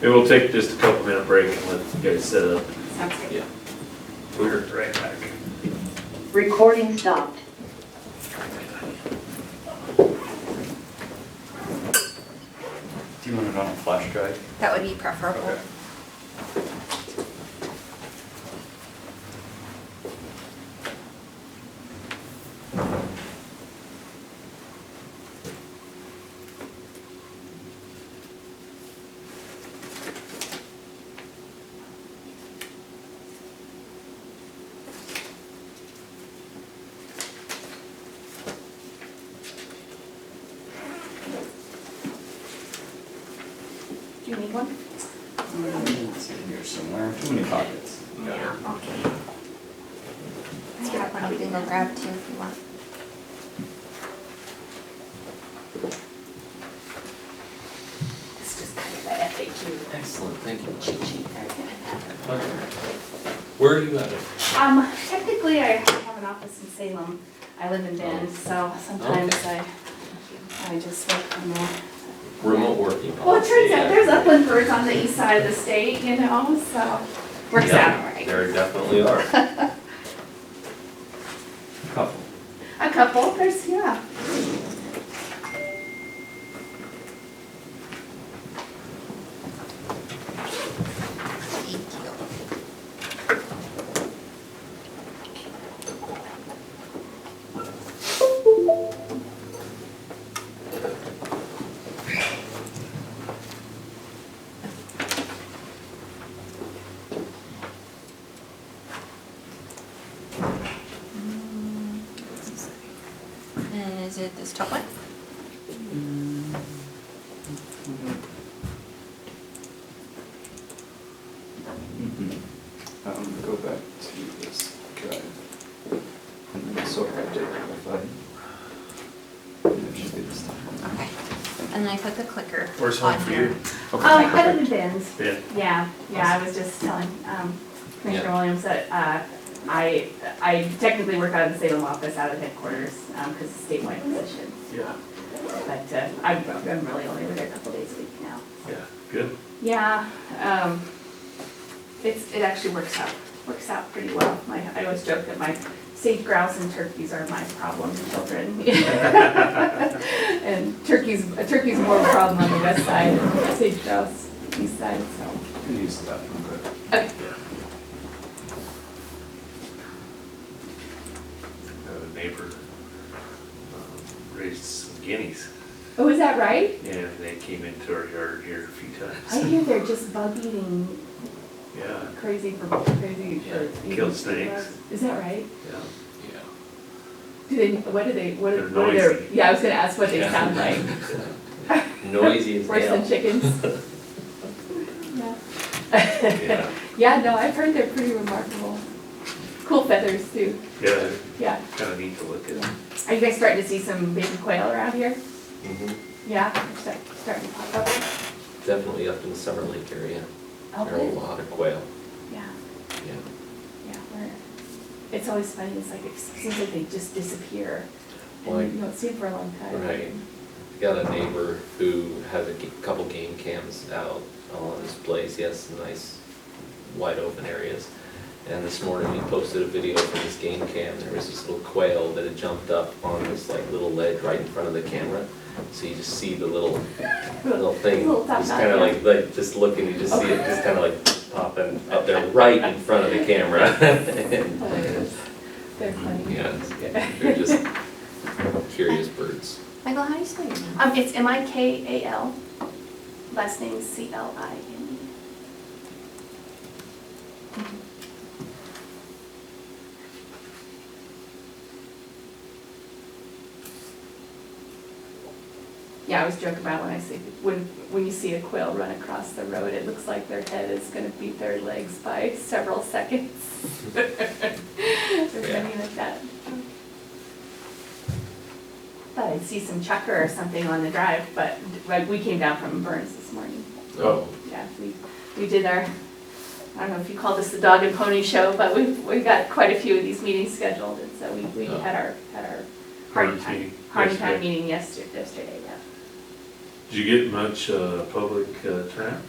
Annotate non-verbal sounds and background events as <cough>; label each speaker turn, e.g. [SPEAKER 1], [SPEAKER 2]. [SPEAKER 1] Maybe we'll take just a couple minute break and let you guys set up.
[SPEAKER 2] Sounds good.
[SPEAKER 1] We're right back.
[SPEAKER 3] Recording stopped.
[SPEAKER 4] Do you want it on a flash drive?
[SPEAKER 2] That would be preferable.
[SPEAKER 4] Okay.
[SPEAKER 2] Do you need one?
[SPEAKER 4] It's in here somewhere. Too many pockets.
[SPEAKER 2] Yeah, okay. I have one we can go grab too if you want. It's just kind of the FAQ.
[SPEAKER 5] Excellent, thank you.
[SPEAKER 2] cheat sheet they're gonna have.
[SPEAKER 5] Where are you at?
[SPEAKER 2] Um, technically, I have an office in Salem. I live in Bend, so sometimes I, I just work from there.
[SPEAKER 5] Remote working
[SPEAKER 4] Oh,
[SPEAKER 2] Well, it
[SPEAKER 5] policy.
[SPEAKER 2] turns out there's upland birds on the east side of the state, you know, so works out all right.
[SPEAKER 5] There definitely are.
[SPEAKER 4] Couple.
[SPEAKER 2] A couple, there's, yeah.
[SPEAKER 6] And is it this top one?
[SPEAKER 4] Mm-hmm. Mhm. Um, go back to this drive. And then sort by date if I. It um, should be this time.
[SPEAKER 6] Okay. And then I put the clicker
[SPEAKER 1] Where's home
[SPEAKER 6] on
[SPEAKER 1] for
[SPEAKER 6] here.
[SPEAKER 1] you?
[SPEAKER 2] Um,
[SPEAKER 4] Okay,
[SPEAKER 2] I
[SPEAKER 4] perfect.
[SPEAKER 2] live in Ben's.
[SPEAKER 1] Yeah.
[SPEAKER 2] Yeah, yeah, I was just telling, um, Commissioner
[SPEAKER 5] Yeah.
[SPEAKER 2] Williams that, uh, I, I technically work out of the Salem office, out of headquarters, um, cause it's a statewide position.
[SPEAKER 1] Yeah,
[SPEAKER 2] But, uh, I'm, I'm really only over there a couple days a week now.
[SPEAKER 1] yeah, good.
[SPEAKER 2] Yeah, um, it's, it actually works out, works out pretty well. My, I always joke that my sage grouse and turkeys are my problem children. <laughs> And turkeys, a turkey's more of a problem on the west side, than sage grouse east side, so.
[SPEAKER 4] You can use that one, good.
[SPEAKER 1] I have Uh, a neighbor um, raised some guineas
[SPEAKER 2] Oh, is that right?
[SPEAKER 1] and they came into our yard here a few
[SPEAKER 2] I
[SPEAKER 1] times.
[SPEAKER 2] hear they're just bug eating
[SPEAKER 1] Yeah,
[SPEAKER 2] crazy for, crazy for. eating
[SPEAKER 1] Killed snakes.
[SPEAKER 2] Is that right?
[SPEAKER 1] yeah.
[SPEAKER 5] Yeah.
[SPEAKER 2] Do they, what do they, what
[SPEAKER 1] They're
[SPEAKER 2] are, what are their,
[SPEAKER 1] noisy.
[SPEAKER 2] yeah, I was gonna ask what they
[SPEAKER 5] Yeah.
[SPEAKER 2] sound
[SPEAKER 1] <laughs>
[SPEAKER 2] like.
[SPEAKER 5] Noisy as
[SPEAKER 2] Worse than
[SPEAKER 5] hell.
[SPEAKER 2] chickens?
[SPEAKER 5] <laughs>
[SPEAKER 2] <laughs> Yeah.
[SPEAKER 1] Yeah,
[SPEAKER 2] Yeah, no, I've heard they're pretty remarkable. Cool feathers too,
[SPEAKER 1] yeah,
[SPEAKER 2] yeah.
[SPEAKER 1] kind of neat to look at.
[SPEAKER 2] Are you guys starting to see some baby quail around here?
[SPEAKER 5] Mhm.
[SPEAKER 2] Yeah, they're start- starting to pop up.
[SPEAKER 5] Definitely up in the Summer Lake area.
[SPEAKER 2] Oh,
[SPEAKER 5] There are a
[SPEAKER 2] good.
[SPEAKER 5] lot of quail,
[SPEAKER 2] Yeah,
[SPEAKER 5] yeah.
[SPEAKER 2] yeah, we're, it's always funny, it's like, it seems like they just disappear.
[SPEAKER 5] Like-
[SPEAKER 2] And you don't see them for a long time.
[SPEAKER 5] Right. I Got a neighbor who has a g- couple game cams out on his place, he has some nice wide open areas. And this morning, he posted a video from his game cam, there was this little quail that had jumped up on this like little ledge right in front of the camera. So you just see the little, little thing,
[SPEAKER 2] Little top
[SPEAKER 5] just
[SPEAKER 2] knot,
[SPEAKER 5] kinda
[SPEAKER 2] yeah.
[SPEAKER 5] like, like, just looking, you just see it just kinda like popping up there right in front of the camera.
[SPEAKER 2] <laughs>
[SPEAKER 5] <laughs>
[SPEAKER 2] Hilarious. <laughs> They're funny.
[SPEAKER 5] Yeah, it's- they're just curious birds.
[SPEAKER 6] Michael, how do you spell your name?
[SPEAKER 2] Um, it's M I K A L, last name C L I N E. Yeah, I was joking about when I see, when, when you see a quail run across the road, it looks like their head is gonna beat their legs by <laughs> several seconds.
[SPEAKER 1] <laughs>
[SPEAKER 2] They're running like that. Thought I'd see some chucker or something on the drive, but like, we came down from Burns this morning.
[SPEAKER 5] Oh.
[SPEAKER 2] Yeah, we, we did our, I don't know if you call this the dog and pony show, but we, we got quite a few of these meetings scheduled, and so we, we
[SPEAKER 5] Oh.
[SPEAKER 2] had our, had our hardy
[SPEAKER 1] Harness
[SPEAKER 2] time,
[SPEAKER 1] meeting
[SPEAKER 2] hardy time
[SPEAKER 1] yesterday.
[SPEAKER 2] meeting yesterday, yesterday, yeah.
[SPEAKER 1] Did you get much uh, public uh, turnout?